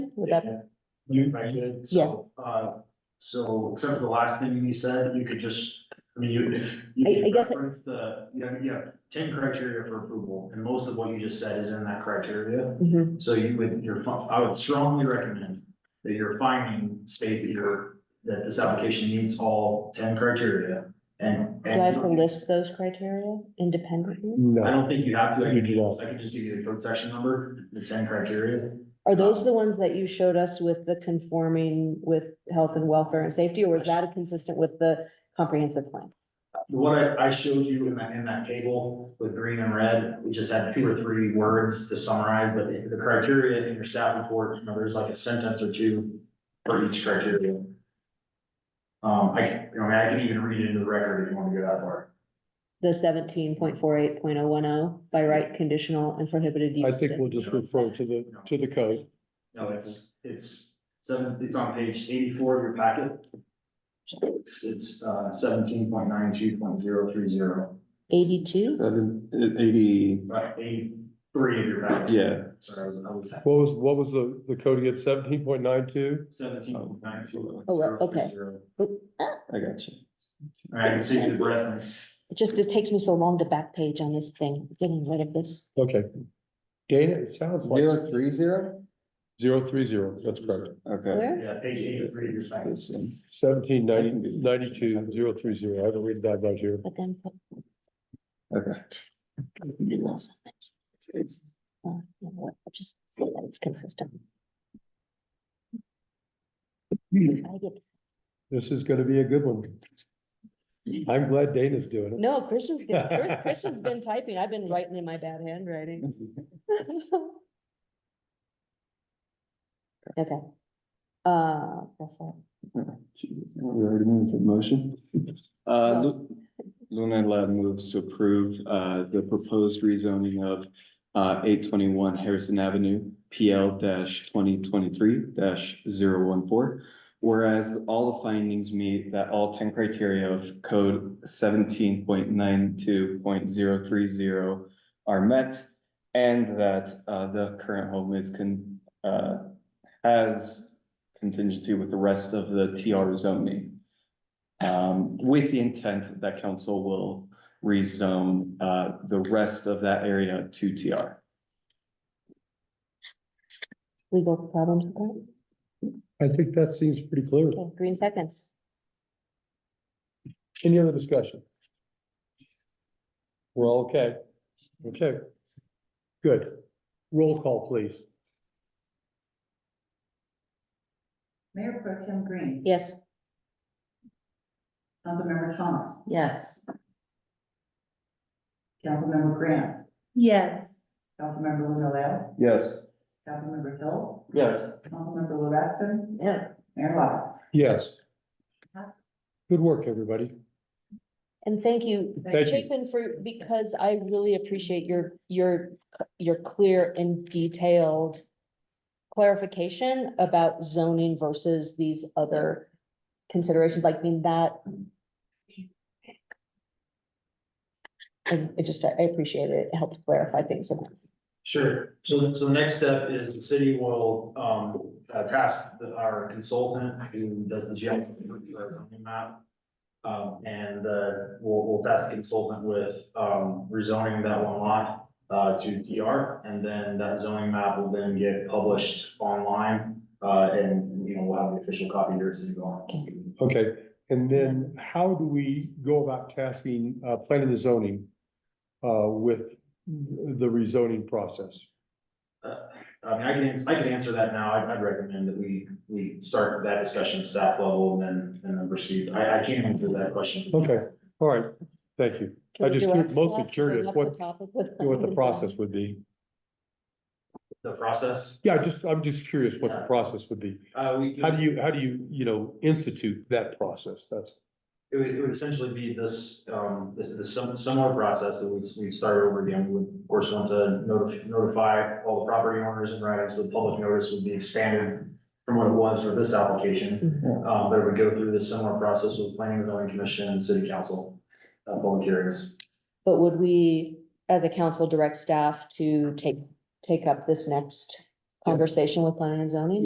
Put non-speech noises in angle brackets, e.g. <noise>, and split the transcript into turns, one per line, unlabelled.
Would that,
You, I did, so, uh, so except for the last thing you said, you could just, I mean, you, if. you
I- I guess it-
Reference the, you have, you have ten criteria for approval, and most of what you just said is in that criteria.
Mhm.
So you would, your, fi- I would strongly recommend that your finding state that your, that this application meets all ten criteria. And,
do I have to
and
list those criteria independently?
I
No,
don't think you have to, I
you do
can,
not.
I can just give you the code section number, the ten criteria.
Are those the ones that you showed us with the conforming with health and welfare and safety, or was that consistent with the comprehensive plan?
What I, I showed you in that, in that table with green and red, we just had two or three words to summarize, but the- the criteria in your staff report, you know, there's like a sentence or two for each criteria. Um, I, can- you know, I can even read it into the record if you want to go that far.
The seventeen point four eight point oh one oh by right conditional and prohibited
I
use.
think we'll just refer to the, to the code.
No, it's, it's seven, it's on page eighty-four of your packet. It's, it's, uh, seventeen point nine two point zero three zero,
Eighty-two,
Seven, eighty,
about eighty-three of your packet.
yeah,
Sorry, I was, I was.
What was, what was the, the code again, seventeen point nine two?
Seventeen point nine two.
Oh, well, okay.
I got you.
All right, I can see his reference.
it just, it takes me so long to back page on this thing, getting rid of this.
Okay. Dana, it sounds like
Zero three zero?
zero three zero, that's correct.
Okay.
Where?
Yeah, page eighty-three, of your second.
This one.
Seventeen ninety, ninety-two, zero three zero, I haven't read that right here.
But then. put-
Okay.
Uh, you know what, I'll Just see that it's consistent. I get
This is gonna be a good one. I'm glad Dana's doing it.
No, Christian's been, Chris- Christian's been typing. I've been writing in my bad handwriting. <laughs> Okay. Uh, go for it.
Jesus, We already moved to the motion. Uh,
Well-
Lu- Luna Lab moves to approve, uh, the proposed rezoning of, uh, eight twenty-one Harrison Avenue, PL twenty twenty-three 14 Whereas all the findings meet that all ten criteria of code seventeen point nine two point zero three zero are met. And that, uh, the current home is con, uh, has contingency with the rest of the TR zoning. Um, with the intent that council will rezone, uh, the rest of that area to TR.
Legal problems with that?
I think that seems pretty clear.
Okay, green seconds.
Any other discussion? We're all okay? Okay. Good. Roll call, please.
Mayor Pro Tem Green.
Yes.
Councilmember Thomas.
Yes.
Councilmember Grant.
Yes,
Councilmember Luna Lab.
Yes.
Councilmember Hill.
Yes.
Councilmember Levason.
Yeah.
Mayor Lott.
Yes. Good work, everybody.
And thank you,
Thank you.
Chapin, for, because I really appreciate your, your, your clear and detailed clarification about zoning versus these other considerations, like being that. And it just, I appreciate it. It helped clarify things. a lot.
Sure, so, so the next step is the city will, um, uh, task the- our consultant who does the geo zoning map. Um, and, uh, we'll, we'll task the consultant with, um, rezoning that one lot, uh, to DR. And then that zoning map will then get published online, uh, and, you know, we'll have the official copy here at City Hall.
Okay, and then how do we go about tasking, uh, planning and zoning uh, with the rezoning process?
Uh, I mean, I can, I can answer that now. I'd, I'd recommend that we, we start that discussion at staff level and then, and then proceed. I, I can't answer that question.
Okay, all right, thank you.
Can
I
we
just
direct
mostly
staff to
curious
bring up
what-
the topic with-
What the process would be.
The process,
Yeah, I just, I'm just curious what the process would be.
uh, we.
How do you, how do you, you know, institute that process? That's,
It would, it would essentially be this, um, this, this sim- similar process that we, we start over again. We would, of course, want to notif- notify all the property owners and rights. The public notice would be expanded from what it was for this application.
Mm-hmm.
Mhm.
Uh, but it would go through this similar process with planning and zoning commission and city council, uh, public hearings.
But would we, as a council, direct staff to take, take up this next conversation with planning and zoning?